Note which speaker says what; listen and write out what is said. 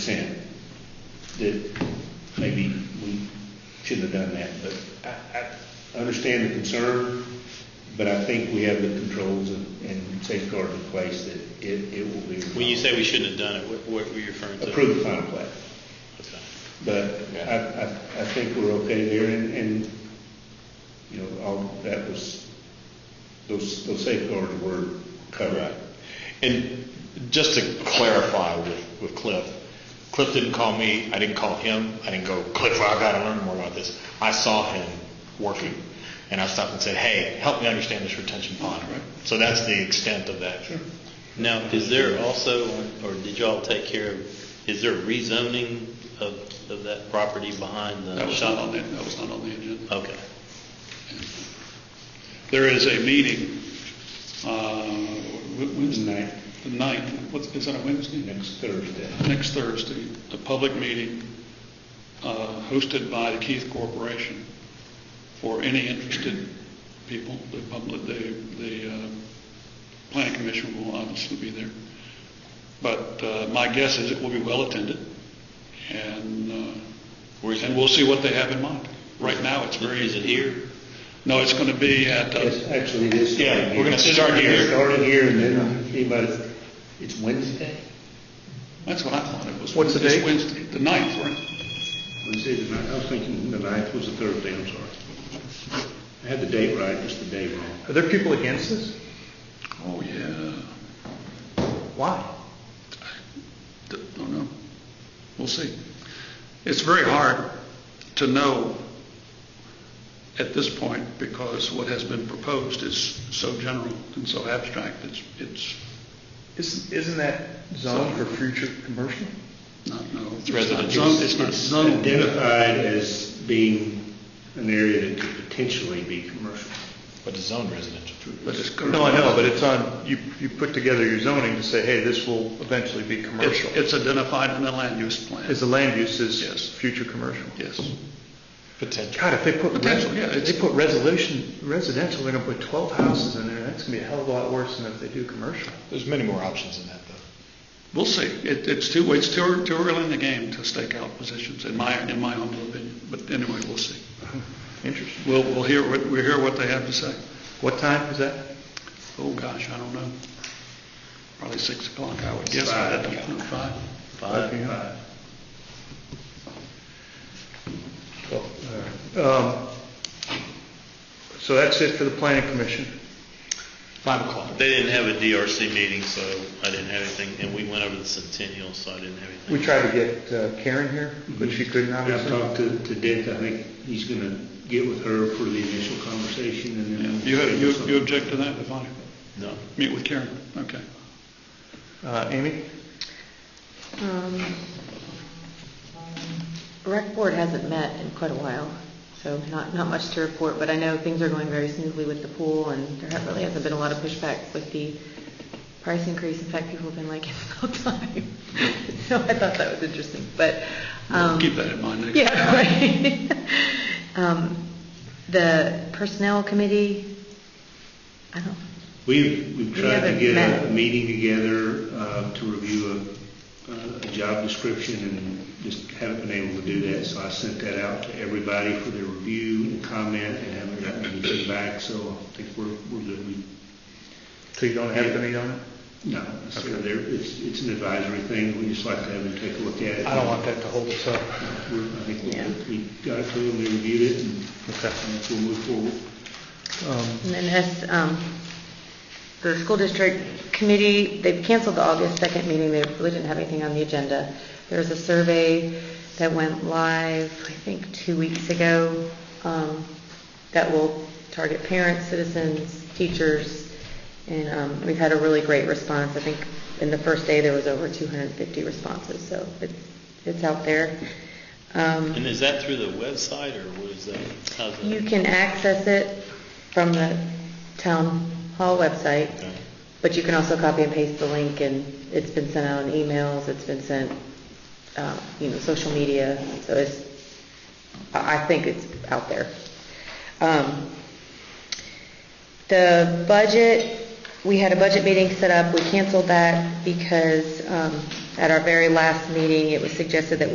Speaker 1: that maybe we shouldn't have done that, but I, I understand the concern, but I think we have the controls and and safeguards in place that it, it will be.
Speaker 2: When you say we shouldn't have done it, what, what were you referring to?
Speaker 1: Approve the final plat.
Speaker 2: Okay.
Speaker 1: But I, I, I think we're okay there, and, and, you know, all, that was, those, those safeguards were covered.
Speaker 3: Right. And just to clarify with, with Cliff, Cliff didn't call me, I didn't call him, I didn't go, Cliff, I gotta learn more about this. I saw him working, and I stopped and said, hey, help me understand this retention pond. So that's the extent of that.
Speaker 2: Now, is there also, or did y'all take care of, is there rezoning of, of that property behind
Speaker 4: That
Speaker 2: the
Speaker 4: was not
Speaker 2: shop?
Speaker 4: on the, that was not on the agenda.
Speaker 2: Okay.
Speaker 4: There is a meeting, uh, Wed- Wednesday,
Speaker 1: Tonight,
Speaker 4: the ninth, what's, is that a Wednesday?
Speaker 1: next Thursday.
Speaker 4: Next Thursday, a public meeting, uh, hosted by the Keith Corporation for any interested people, the public, the, the, uh, planning commission will obviously be there. But, uh, my guess is it will be well attended and, uh,
Speaker 2: Where's it?
Speaker 4: and we'll see what they have in mind. Right now, it's very.
Speaker 2: Is it here?
Speaker 4: No, it's going to be at, uh,
Speaker 1: Yes, actually, it is.
Speaker 3: Yeah,
Speaker 1: starting
Speaker 3: we're gonna
Speaker 1: here.
Speaker 3: start here.
Speaker 1: It's Starting here, and then, anybody, it's Wednesday?
Speaker 4: that's what I thought it was.
Speaker 5: What's the
Speaker 4: It's
Speaker 5: date?
Speaker 4: Wednesday, the ninth, right?
Speaker 1: Wednesday, the ninth, I was thinking the ninth was a Thursday, I'm sorry. I had the date right, just the day wrong.
Speaker 5: Are there people against this?
Speaker 4: Oh, yeah.
Speaker 5: Why?
Speaker 4: D- Don't know. We'll see. It's very hard to know at this point because what has been proposed is so general and so abstract, it's, it's
Speaker 5: Isn't, isn't that zoned for future commercial?
Speaker 4: not, no. It's
Speaker 2: residential.
Speaker 4: not zoned- It's not
Speaker 1: It's
Speaker 4: zoned.
Speaker 1: identified as being an area that could potentially be commercial.
Speaker 3: But it's zoned residential.
Speaker 4: but it's current.
Speaker 5: No, I know, but it's on, you, you put together your zoning to say, hey, this will eventually be
Speaker 4: It's
Speaker 5: commercial.
Speaker 4: it's identified in the land use plan.
Speaker 5: Is the land use
Speaker 4: Yes.
Speaker 5: is future commercial?
Speaker 4: Yes.
Speaker 3: Potential.
Speaker 5: God, if they put, res-
Speaker 4: Potential, yeah,
Speaker 5: if
Speaker 4: it's-
Speaker 5: they put resolution, residential, they're gonna put twelve houses in there, that's gonna be a hell of a lot worse than if they do commercial.
Speaker 3: There's many more options than that, though.
Speaker 4: We'll see. It, it's too, it's too, too early in the game to stake out positions, in my, in my humble opinion. But anyway, we'll see.
Speaker 5: Interesting.
Speaker 4: We'll, we'll hear, what- we'll hear what they have to say.
Speaker 5: What time is that?
Speaker 4: Oh, gosh, I don't know. Probably six o'clock, I would guess. I had to count it Five.
Speaker 5: Five PM. Well, all right. Um, So that's it for the planning commission.
Speaker 3: Five o'clock.
Speaker 2: They didn't have a DRC meeting, so I didn't have anything, and we went over the centennial, so I didn't have anything.
Speaker 5: We tried to get uh, Karen here, but she couldn't
Speaker 1: I've
Speaker 5: obviously.
Speaker 1: talked to, to Dick, I think he's gonna get with her for the initial conversation and then.
Speaker 4: You, have- you you object to that, if I
Speaker 2: No.
Speaker 4: meet with Karen? Okay.
Speaker 5: Uh, Amy?
Speaker 6: Um, Rec Board hasn't met in quite a while, so not, not much to report, but I know things are going very smoothly with the pool, and there ha- really hasn't been a lot of pushback with the price increase. In fact, people have been like, it's about time. So I thought that was interesting, but. um,
Speaker 4: Keep that in mind next time.
Speaker 6: yeah, right. Um, The Personnel Committee, I don't,
Speaker 1: We've, we've
Speaker 6: We
Speaker 1: tried to
Speaker 6: haven't
Speaker 1: get a-
Speaker 6: met.
Speaker 1: a meeting together, uh, to review a, uh, a- a job description and just haven't been able to do that, so I sent that out to everybody for their review and comment and haven't gotten anything back, so I think we're, we're good. We
Speaker 5: So you don't have to meet on it?
Speaker 1: No, it's, there, it's, it's an advisory thing, we just like to have them take a look at it.
Speaker 5: I don't want that to hold us up.
Speaker 1: We're, I think
Speaker 6: Yeah.
Speaker 1: we, we got it to them, they reviewed it, and
Speaker 5: Okay.
Speaker 1: I think we'll move forward.
Speaker 5: Um,
Speaker 6: And then has, um, the school district committee, they've canceled the August 2nd meeting, they really didn't have anything on the agenda. There was a survey that went live, I think, two weeks ago, um, that will target parents, citizens, teachers, and um, we've had a really great response. I think in the first day, there was over 250 responses, so it's, it's out there. Um,
Speaker 2: And is that through the website, or what is that? How's that?
Speaker 6: you can access it from the town hall website,
Speaker 2: Okay.
Speaker 6: but you can also copy and paste the link, and it's been sent out in emails, it's been sent, uh, you know, social media, so it's, I I think it's out there. Um, The budget, we had a budget meeting set up, we canceled that because um, at our very last meeting, it was suggested that